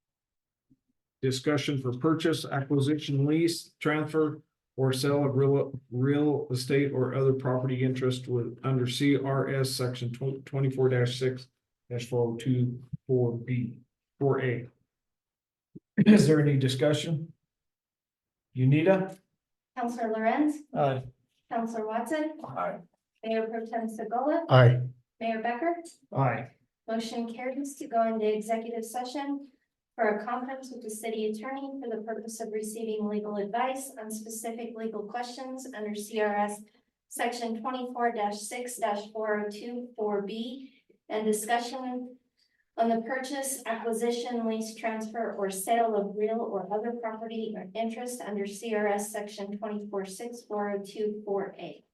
Discussion for purchase, acquisition, lease, transfer, or sale of real, real estate or other property interest with, under CRS section tw- twenty-four six dash four oh two four B, four A. Is there any discussion? Unita? Counselor Lorenz, Aye. Counselor Watson, Aye. Mayor Pro Tem Segola, Aye. Mayor Becker. Aye. Motion carries to go into executive session for a conference with the city attorney for the purpose of receiving legal advice on specific legal questions under CRS section twenty-four six four oh two four B and discussion on the purchase, acquisition, lease transfer, or sale of real or other property or interest under CRS section twenty-four six four oh two four A.